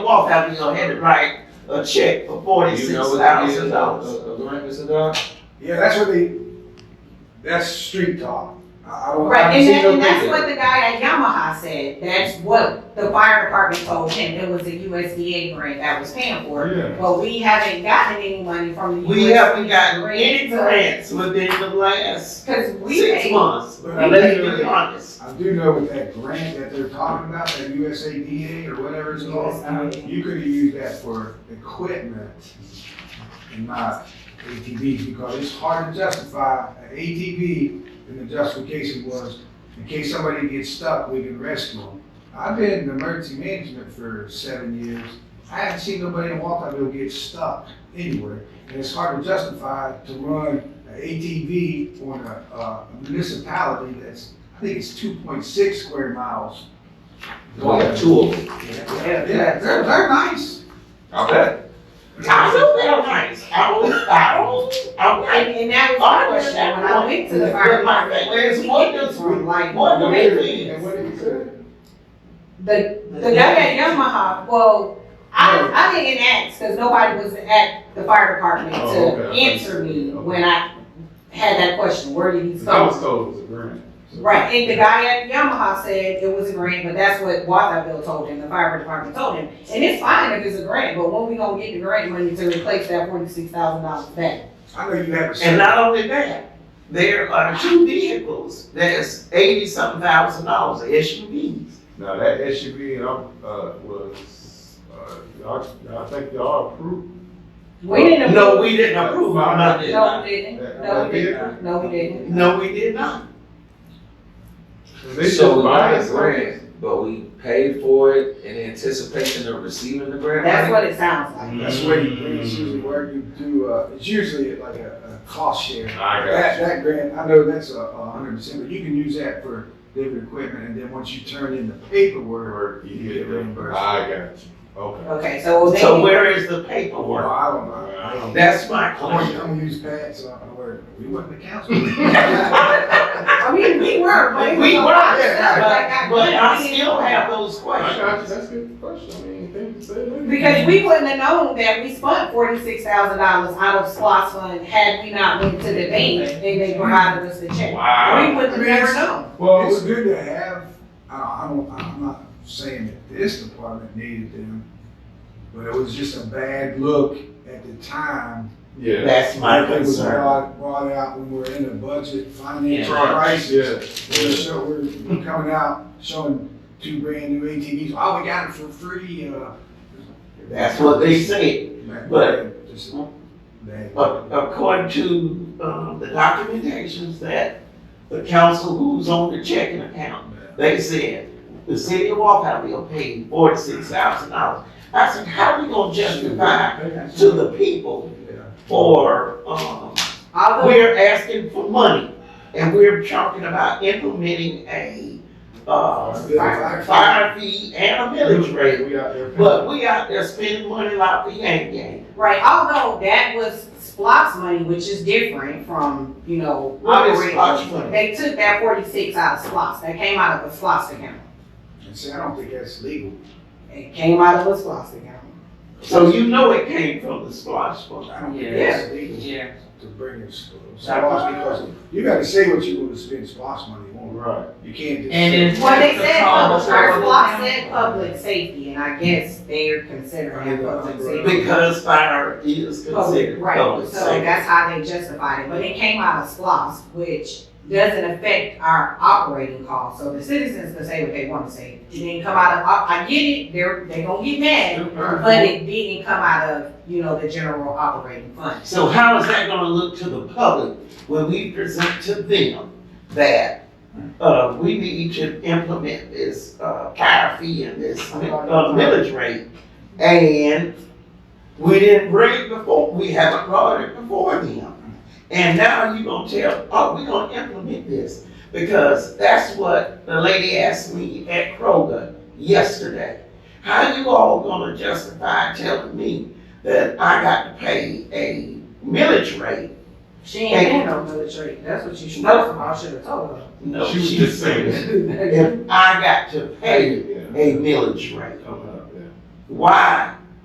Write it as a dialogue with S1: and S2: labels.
S1: off after you had to write a check for
S2: You
S1: forty-six
S2: know what it is,
S1: thousand
S2: a,
S1: dollars.
S2: a, a grant, Mr. Dodd?
S3: Yeah, that's what they, that's street talk. I I don't. I
S4: Right,
S3: haven't
S4: and
S3: seen
S4: that,
S3: no
S4: and that's
S3: picture.
S4: what the guy at Yamaha said, that's what the fire department told him, it was a USDA grant that was paying for it.
S2: Oh, Yeah.
S4: But we haven't gotten any money from the USDA.
S1: We haven't gotten any
S4: grant, so-
S1: grants within the last
S4: Cause we
S1: six
S4: paid,
S1: months.
S3: But I
S1: Let's
S3: do
S1: be
S3: know,
S1: honest.
S3: I do know with that grant that they're talking about, that USADA or whatever it's called,
S4: USDA.
S3: you could have used that for equipment and not ATVs, because it's hard to justify an ATV, and the justification was, in case somebody gets stuck, we can rescue them. I've been in emergency management for seven years, I haven't seen nobody in Walkerville get stuck anywhere, and it's hard to justify to run an ATV on a, uh, municipality that's, I think it's two point six square miles.
S2: We have two of them.
S3: Yeah, they're, they're nice.
S2: Okay.
S1: I know they're nice. I don't, I don't, I'm
S4: and,
S1: like,
S4: and that
S1: I
S4: was the question,
S1: understand.
S4: when I went to the fire
S1: But my-
S4: department, where's
S1: there's
S4: we
S1: one
S4: getting it
S1: that's-
S4: from, like?
S1: one
S3: And
S1: that-
S3: what
S1: Great
S3: did-
S1: things.
S3: and what did he say?
S4: The, the guy at Yamaha, well, I, I didn't ask, cause nobody was at the fire department
S2: Oh,
S4: to
S2: okay.
S4: answer me when I had that question, where did he
S2: So I
S4: start?
S2: was told it was a grant. So-
S4: Right, and the guy at Yamaha said it was a grant, but that's what Walkerville told him, the fire department told him. And it's fine if it's a grant, but when we gonna get the grant money to replace that forty-six thousand dollars back?
S3: I know you have a.
S1: And not only that, there are two vehicles that's eighty-something thousand dollars, SUVs.
S2: Now, that SUV, I'm, uh, was, uh, y'all, y'all think y'all approved?
S4: We didn't.
S1: No, we didn't approve, I'm not, did
S4: No,
S1: not.
S4: we didn't,
S2: that-
S4: no,
S2: that
S4: we
S2: vehicle?
S4: didn't, no, we didn't.
S1: No, we did not.
S2: They
S5: So
S2: should
S5: we
S2: buy
S5: got a
S2: it.
S5: grant, but we paid for it in anticipation of receiving the grant
S4: That's
S5: money?
S4: what it sounds like.
S3: That's where you, where it's usually where you do, uh, it's usually like a, a cost share.
S2: I got
S3: That,
S2: you.
S3: that grant, I know that's a, a hundred percent, but you can use that for different equipment, and then once you turn in the paperwork,
S2: Or you get reimbursed. I got you. Okay.
S4: Okay, so they.
S1: So where is the
S3: well,
S1: paperwork?
S3: I don't know. I don't-
S1: That's my
S3: I'm gonna,
S1: question.
S3: I'm gonna use Pat, so I'm aware, we wasn't the council.
S4: I mean, we were, but. it was
S1: We
S4: a
S1: were,
S4: lot of stuff that
S1: but,
S4: got
S1: but
S4: done.
S1: I still have those
S2: I
S1: questions.
S2: got you. That's a good question. I mean, thank you said that.
S4: Because we wouldn't have known that we spent forty-six thousand dollars out of SLOSS fund had we not went to the bank and they provided us the check. We
S2: Wow.
S4: would have never known.
S2: Well,
S3: It's good to have, I, I don't, I'm not saying that this department needed them, but it was just a bad look at the time
S2: yeah.
S1: That's my
S3: It was
S1: concern.
S3: brought, brought out when we were in a budget financial
S1: Yeah.
S3: crisis.
S2: Yeah.
S3: We're, show, we're coming out showing two brand new ATVs. Oh, we got it for free. Uh,
S1: That's what they said.
S3: man,
S1: But-
S3: just bad.
S1: But according to, um, the documentations that the council who's on the checking account, they said, the city of Walkoutville paid forty-six thousand dollars. I said, how are we gonna justify to the people for, um,
S4: Although,
S1: we're asking for money, and we're talking about implementing a, uh,
S3: Fire-
S1: fire fee and a millage rate,
S2: We out there.
S1: but we out there spending money like the Yang Yang.
S4: right, although that was SLOSS money, which is different from, you know,
S1: What is
S4: operating.
S1: SLOSS money?
S4: They took that forty-six out of SLOSS, that came out of the SLOSS account.
S3: And see, I don't think that's legal.
S4: It came out of the SLOSS account.
S1: So you know it came from the splash fund.
S3: I don't think
S1: Yeah.
S3: that's legal
S1: Yeah.
S3: to bring in school.
S1: That-
S3: because you got to say what you want to spend SPOS money on.
S2: Right.
S3: You can't just.
S1: And
S3: say-
S1: it's-
S4: Well, they said,
S1: Oh,
S4: public- our
S1: so-
S4: SLOSS said public safety, and I guess they're considering it public safety. Oh,
S1: Because fire is considered
S4: Right,
S1: public
S4: so
S1: safety.
S4: that's how they justified it, but it came out of SLOSS, which doesn't affect our operating costs, so the citizens can say what they wanna say. It didn't come out of, op- I get it, they're, they gonna get mad, but it didn't come out of, you know, the general operating fund.
S1: So how is that gonna look to the public when we present to them that, uh, we need to implement this, uh, fire fee and this, uh, millage rate? And we didn't bring it before, we haven't brought it before them. And now you gonna tell, oh, we gonna implement this, because that's what the lady asked me at Kroger yesterday. How you all gonna justify telling me that I got to pay a millage rate?
S4: She ain't had no military, that's what you should, that's what I should've told her.
S1: No,
S2: She was
S1: she
S2: just saying
S1: said, If I got to pay
S2: Yeah.
S1: a millage rate.
S2: Coming up, yeah.
S1: why